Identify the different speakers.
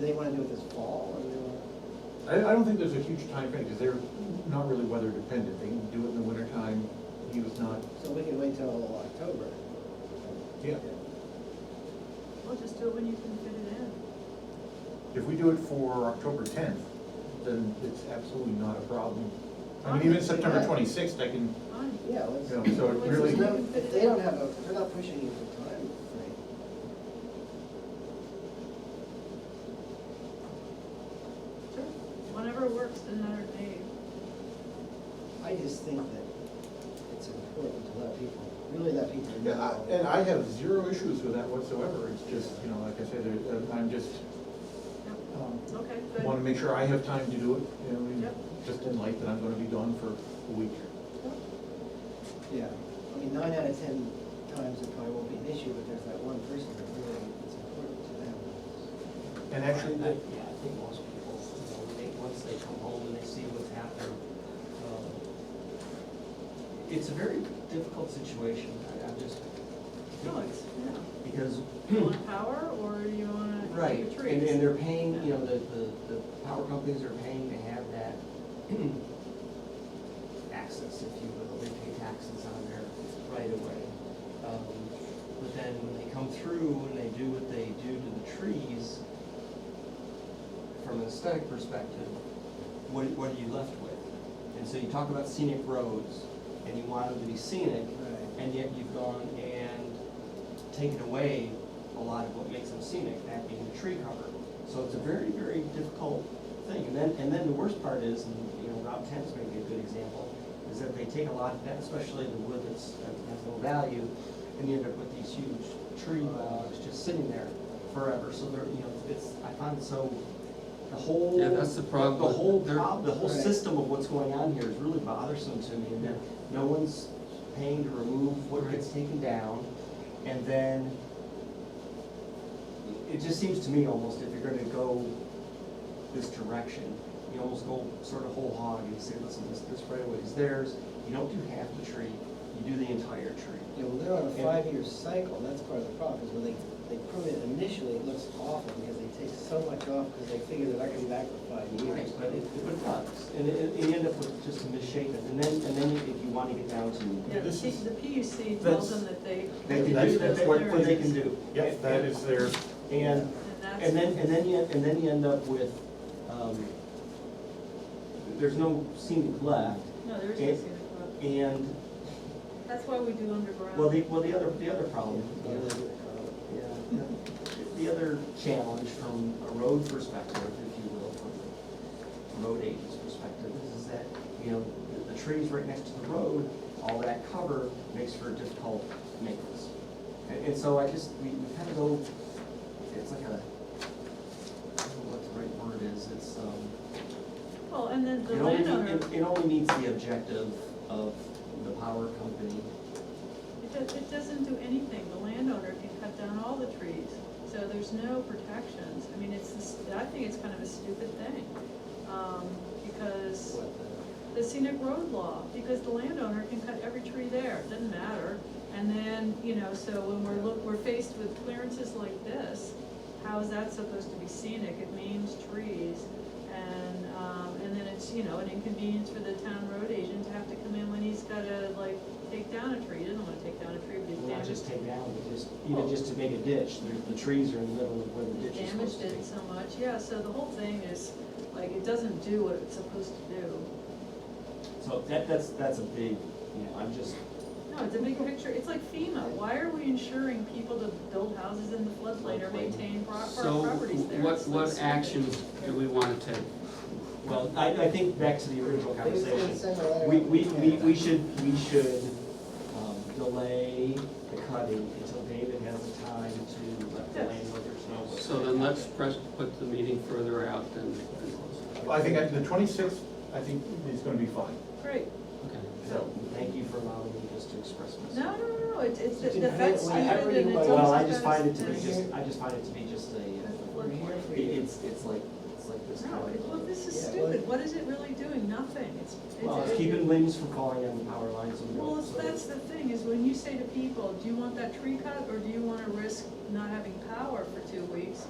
Speaker 1: they wanna do it this fall, or do they wanna?
Speaker 2: I, I don't think there's a huge time frame because they're not really weather dependent. They can do it in the wintertime. He was not,
Speaker 1: So we can wait till October.
Speaker 2: yeah.
Speaker 3: Well, just do it when you can fit it in.
Speaker 2: If we do it for October tenth, then it's absolutely not a problem. I mean, even September twenty-sixth, I can,
Speaker 3: Fine.
Speaker 1: Yeah, let's.
Speaker 2: you know, so it
Speaker 1: There's
Speaker 2: really,
Speaker 1: no- If they don't have a, if they're not pushing you for time, right?
Speaker 3: Sure. Whenever works, doesn't matter to Dave.
Speaker 1: I just think that it's important to let people, really let people know.
Speaker 2: Yeah, I- and I have zero issues with that whatsoever. It's just, you know, like I said, there- uh, I'm just,
Speaker 3: Yep.
Speaker 2: um,
Speaker 3: Okay,
Speaker 2: wanna
Speaker 3: good.
Speaker 2: make sure I have time to do it, you know, and
Speaker 3: Yep.
Speaker 2: just in light that I'm gonna be gone for a week.
Speaker 1: Yeah, I mean, nine out of ten times it probably won't be an issue, but there's that one person that really, it's important to them.
Speaker 2: And actually,
Speaker 4: I-
Speaker 2: the-
Speaker 4: Yeah, I think most people, you know, they, once they come home and they see what's happened, um, it's a very difficult situation, I, I'm just.
Speaker 3: No, it's, yeah.
Speaker 4: Because,
Speaker 3: You want power or you want to
Speaker 4: right,
Speaker 3: keep your
Speaker 4: and,
Speaker 3: trees?
Speaker 4: and they're paying, you know, the, the, the power companies are paying to have that access, if you will, they pay taxes on their right of way. Um, But then when they come through and they do what they do to the trees, from an aesthetic perspective, what, what are you left with? And so you talk about scenic roads, and you want them to be scenic,
Speaker 1: Right.
Speaker 4: and yet you've gone and taken away a lot of what makes them scenic, that being the tree cover. So it's a very, very difficult thing. And then, and then the worst part is, and you know, Route ten is maybe a good example, is that they take a lot of that, especially the wood that's, that has no value, and you end up with these huge tree logs just sitting there forever. So they're, you know, it's, I find it so, the whole.
Speaker 5: Yeah, that's the problem
Speaker 4: The
Speaker 5: with-
Speaker 4: whole
Speaker 5: they're-
Speaker 4: prob, the whole
Speaker 1: Right.
Speaker 4: system of what's going on here is really bothersome to me. And that no one's paying to remove what gets taken down. And then it just seems to me almost if you're gonna go this direction, you almost go sort of whole hog and say, listen, this, this right of way is theirs. You don't do half the tree, you do the entire tree.
Speaker 1: Yeah, well, they're on a
Speaker 4: Yeah.
Speaker 1: five-year cycle, and that's part of the problem, is when they, they prune it initially, it looks awful, because they take so much off, because they figure they're not gonna be back for five years.
Speaker 4: But it, but it does, and it, it- you end up with just a misshapen, and then, and then if you wanna get down to,
Speaker 3: Yeah, the
Speaker 2: this
Speaker 3: P-
Speaker 2: is-
Speaker 3: the PUC
Speaker 2: that's-
Speaker 3: tells them that they.
Speaker 4: they can do,
Speaker 2: That's-
Speaker 4: that-
Speaker 2: that's
Speaker 4: that-
Speaker 2: what-
Speaker 4: what they can do.
Speaker 2: yep, that is their,
Speaker 4: And
Speaker 3: And that's.
Speaker 4: And then, and then you, and then you end up with, um, there's no scenic left,
Speaker 3: No, there is
Speaker 4: and-
Speaker 3: no scenic road.
Speaker 4: and,
Speaker 3: That's why we do underground.
Speaker 4: well, the, well, the other, the other
Speaker 1: Yeah,
Speaker 4: problem,
Speaker 1: yeah,
Speaker 4: the other-
Speaker 1: they- uh,
Speaker 4: yeah, the- the other challenge from a road perspective, if you will, from the road agent's perspective, is is that, you know, the- the trees right next to the road, all that cover makes for difficult maintenance. And, and so I just, we, we kind of go, it's like a, I don't know what the right word is, it's, um,
Speaker 3: Well, and then the
Speaker 4: It only,
Speaker 3: landowner,
Speaker 4: it, it only meets the objective of the power company.
Speaker 3: it does, it doesn't do anything. The landowner can cut down all the trees, so there's no protections. I mean, it's, this- I think it's kind of a stupid thing, um, because
Speaker 1: what the-
Speaker 3: the scenic road law, because the landowner can cut every tree there, it doesn't matter. And then, you know, so when we're look, we're faced with clearances like this, how is that supposed to be scenic? It means trees. And, um, and then it's, you know, an inconvenience for the town road agent to have to come in when he's gotta like take down a tree, he doesn't wanna take down a tree, but he's
Speaker 4: Well, Not
Speaker 3: damaged.
Speaker 4: just take down, but just, even just to make a ditch, the, the trees are in the middle of where the ditch is
Speaker 3: Damaged
Speaker 4: supposed to be.
Speaker 3: it so much, yeah, so the whole thing is, like, it doesn't do what it's supposed to do.
Speaker 4: So that, that's, that's a big, you know, I'm just,
Speaker 3: No, it's a big picture, it's like FEMA, why are we ensuring people to build houses in the floodplain or maintain pro-
Speaker 5: So
Speaker 3: pro- properties there?
Speaker 5: what,
Speaker 3: It's like
Speaker 5: what
Speaker 3: stupid.
Speaker 5: actions do we want to take?
Speaker 4: well, I, I think back to the original
Speaker 1: They just didn't
Speaker 4: conversation.
Speaker 1: send a letter.
Speaker 4: We, we, we, we should, we should, um, delay the cutting until David has the time to let the
Speaker 3: Yes.
Speaker 4: landowners know. what's
Speaker 5: So then
Speaker 4: going on.
Speaker 5: let's press, put the meeting further out than, than close.
Speaker 2: I think I- the twenty-sixth, I think is gonna be fine.
Speaker 3: Great,
Speaker 5: Okay.
Speaker 4: So, thank you for allowing me just to express myself.
Speaker 3: no, no, no, no, it's, it's,
Speaker 1: Did you
Speaker 3: it affects you
Speaker 1: hear it?
Speaker 3: and
Speaker 1: Whenever you
Speaker 3: it's
Speaker 1: want-
Speaker 3: almost.
Speaker 4: Well, I just
Speaker 3: as-
Speaker 4: find it to be
Speaker 3: as-
Speaker 4: just, I just find it to be just a, uh,
Speaker 1: We're here for
Speaker 4: it-
Speaker 1: you.
Speaker 4: it's, it's like, it's like this.
Speaker 3: No,
Speaker 4: kind
Speaker 3: it-
Speaker 4: of-
Speaker 3: well, this is
Speaker 1: Yeah,
Speaker 3: stupid, what is it really doing? Nothing, it's.
Speaker 4: Well, it's keeping limbs from falling on the power lines and.
Speaker 3: Well, it's- that's the thing, is when you say to people, do you want that tree cut, or do you wanna risk not having power for two weeks?